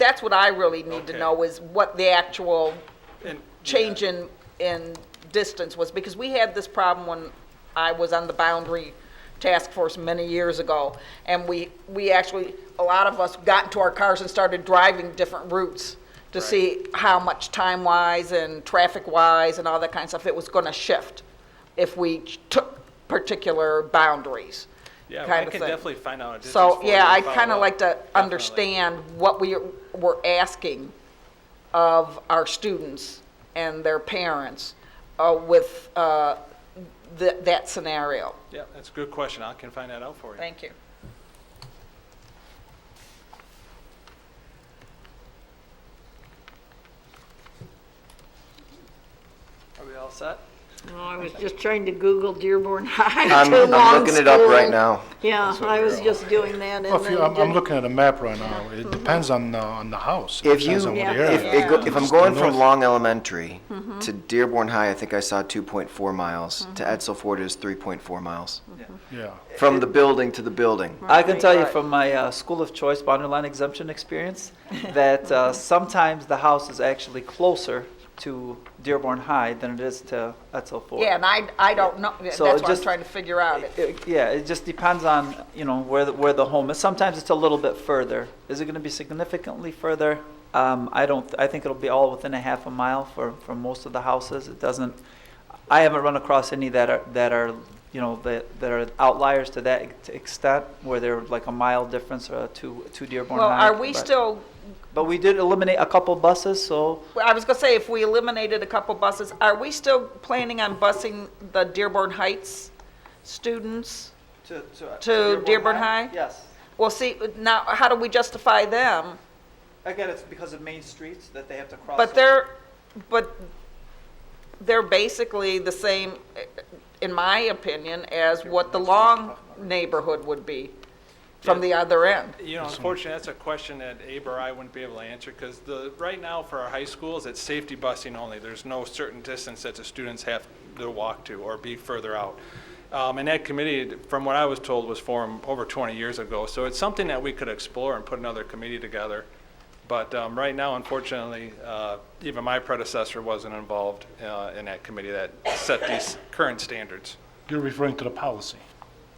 that's what I really need to Okay. know is what the actual And- change in, in distance was, because we had this problem when I was on the boundary task force many years ago, and we, we actually, a lot of us got into our cars and started driving different routes to Right. see how much time-wise and traffic-wise and all that kind of stuff, it was gonna shift if we took particular boundaries, Yeah, kind I of can thing. definitely find out a distance So, for you yeah, and I'd follow kind of up. like to Definitely. understand what we were asking of our students and their parents uh, with uh, th- that scenario. Yeah, that's a good question. I can find that out for you. Thank you. Are we all set? No, I was just trying to Google Dearborn High. I'm- Too I'm long looking it up right school. now. Yeah, I was just doing that and Well, if then you, I'm, I'm did- looking at a map right now. It depends on, uh, on the house. It If you, depends on what if, area. it go- if I'm It's going the from north. Long Elementary Mm-hmm. to Dearborn High, I think I saw 2.4 miles. To Edsel Ford is 3.4 miles. Mm-hmm. Yeah. From the building to the building. I can tell you Right. from my uh, school of choice boundary line exemption experience that uh, sometimes the house is actually closer to Dearborn High than it is to Etzel Ford. Yeah, and I, I don't know, that's So what I'm just- trying to figure out. It- it- yeah, it just depends on you know where the, where the home is. Sometimes it's a little bit further. Is it going to be significantly further? Um, I don't. I think it'll be all within a half a mile for, for most of the houses. It doesn't. I haven't run across any that are that are you know that that are outliers to that ex- extent where they're like a mile difference or two two Dearborn. Well, High, are we but- still, But we did eliminate a couple buses, so well, I was going to say, if we eliminated a couple buses, are we still planning on busing the Dearborn Heights students? to to, To Dearborn Dearborn High? High? Yes. Well, see, now, how do we justify them? Again, it's because of main streets that they have to cross. But they're, but they're basically the same, in my opinion, as what the long neighborhood would be from the other end. You know, unfortunately, that's a question that Abe or I wouldn't be able to answer, because the, right now for our high schools, it's safety busing only. There's no certain distance that the students have to walk to or be further out. Um, and that committee, from what I was told, was formed over twenty years ago, so it's something that we could explore and put another committee together. But, um, right now, unfortunately, uh, even my predecessor wasn't involved, uh, in that committee that set these current standards. You're referring to the policy.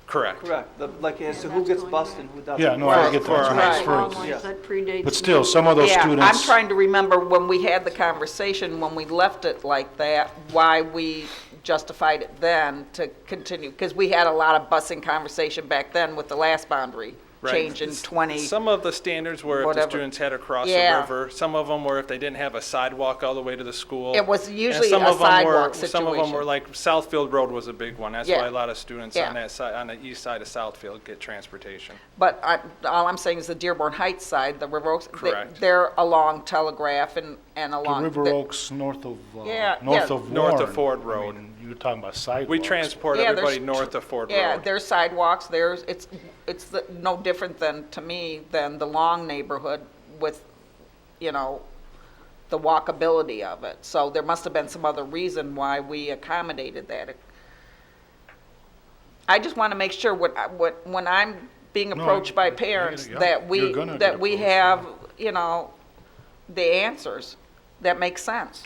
Correct. Correct, The- like, as to who gets bused and who doesn't. Yeah, no, I Well, get for our that. high That's Long what I'm referring lines to. Yeah. that predates But still, some of those Yeah, students. I'm trying to remember when we had the conversation, when we left it like that, why we justified it then to continue, because we had a lot of busing conversation back then with the last boundary Right. change in 20. Some of the standards were if the Whatever. students had to cross the Yeah. river. Some of them were if they didn't have a sidewalk all the way to the school. It was And usually some a of 'em were- sidewalk Some of them were situation. like, Southfield Road was a big one. That's Yeah. why a lot of students Yeah. on that side, on the east side of Southfield get transportation. But I, all I'm saying is the Dearborn Heights side, the River Oaks, they- Correct. they're along Telegraph and, and The along. River the- Oaks, north of, Yeah, uh, north yeah. of Warren. North of Ford I Road. mean, You're talking about sidewalks. We transport Yeah, there's everybody north of Ford Yeah, Road. there's sidewalks, there's, it's, it's the- no different than, to me, than the Long neighborhood with, you know, the walkability of it. So there must have been some other reason why we accommodated that. I just want to make sure what, I- what, when I'm being No, approached by you're gonna- parents, yeah, that you're we, gonna that get we approached, have, you know, the answers that make sense.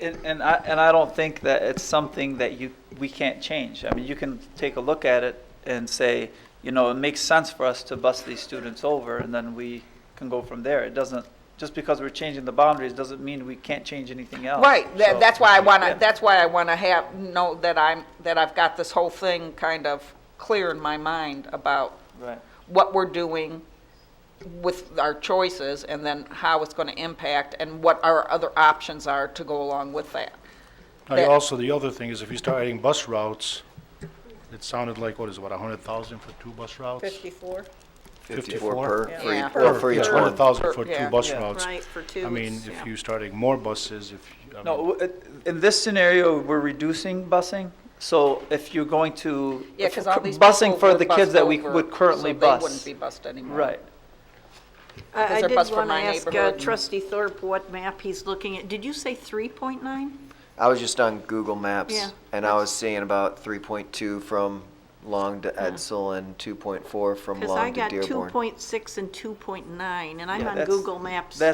And, and I, and I don't think that it's something that you, we can't change. I mean, you can take a look at it and say, you know, it makes sense for us to bus these students over, and then we can go from there. It doesn't, just because we're changing the boundaries doesn't mean we can't change anything else. Right, Oh, So- that, that's why I Yeah. wanna, that's why I wanna have, know that I'm, that I've got this whole thing kind of clear in my mind about Right. what we're doing with our choices and then how it's gonna impact and what our other options are to go along with that. Now, that- also, the other thing is if you start adding bus routes, it sounded like, what is it, what, a hundred thousand for two bus routes? Fifty-four? 54 54? per, for Yeah. each- or for Yeah, each hundred one. thousand Per- for yeah. two bus Yeah. routes. Right, for two. I mean, it's- if yeah. you start adding more buses, if, you- I mean, No, w- in this scenario, we're reducing busing, so if you're going to. Yeah, cause all these Busing people for were the kids bussed that we over, would currently so bus. They wouldn't be bused anymore. Right. because I I they're did bused from want to my ask uh, neighborhood. trustee Thorpe what map he's looking at. Did you say 3.9? I was just on Google Maps Yeah. and I was seeing about 3.2 from long to Edsel and 2.4 from Because I Long to got Dearborn. 2.6 and 2.9, and I'm Yeah, on that's- Google Maps. that's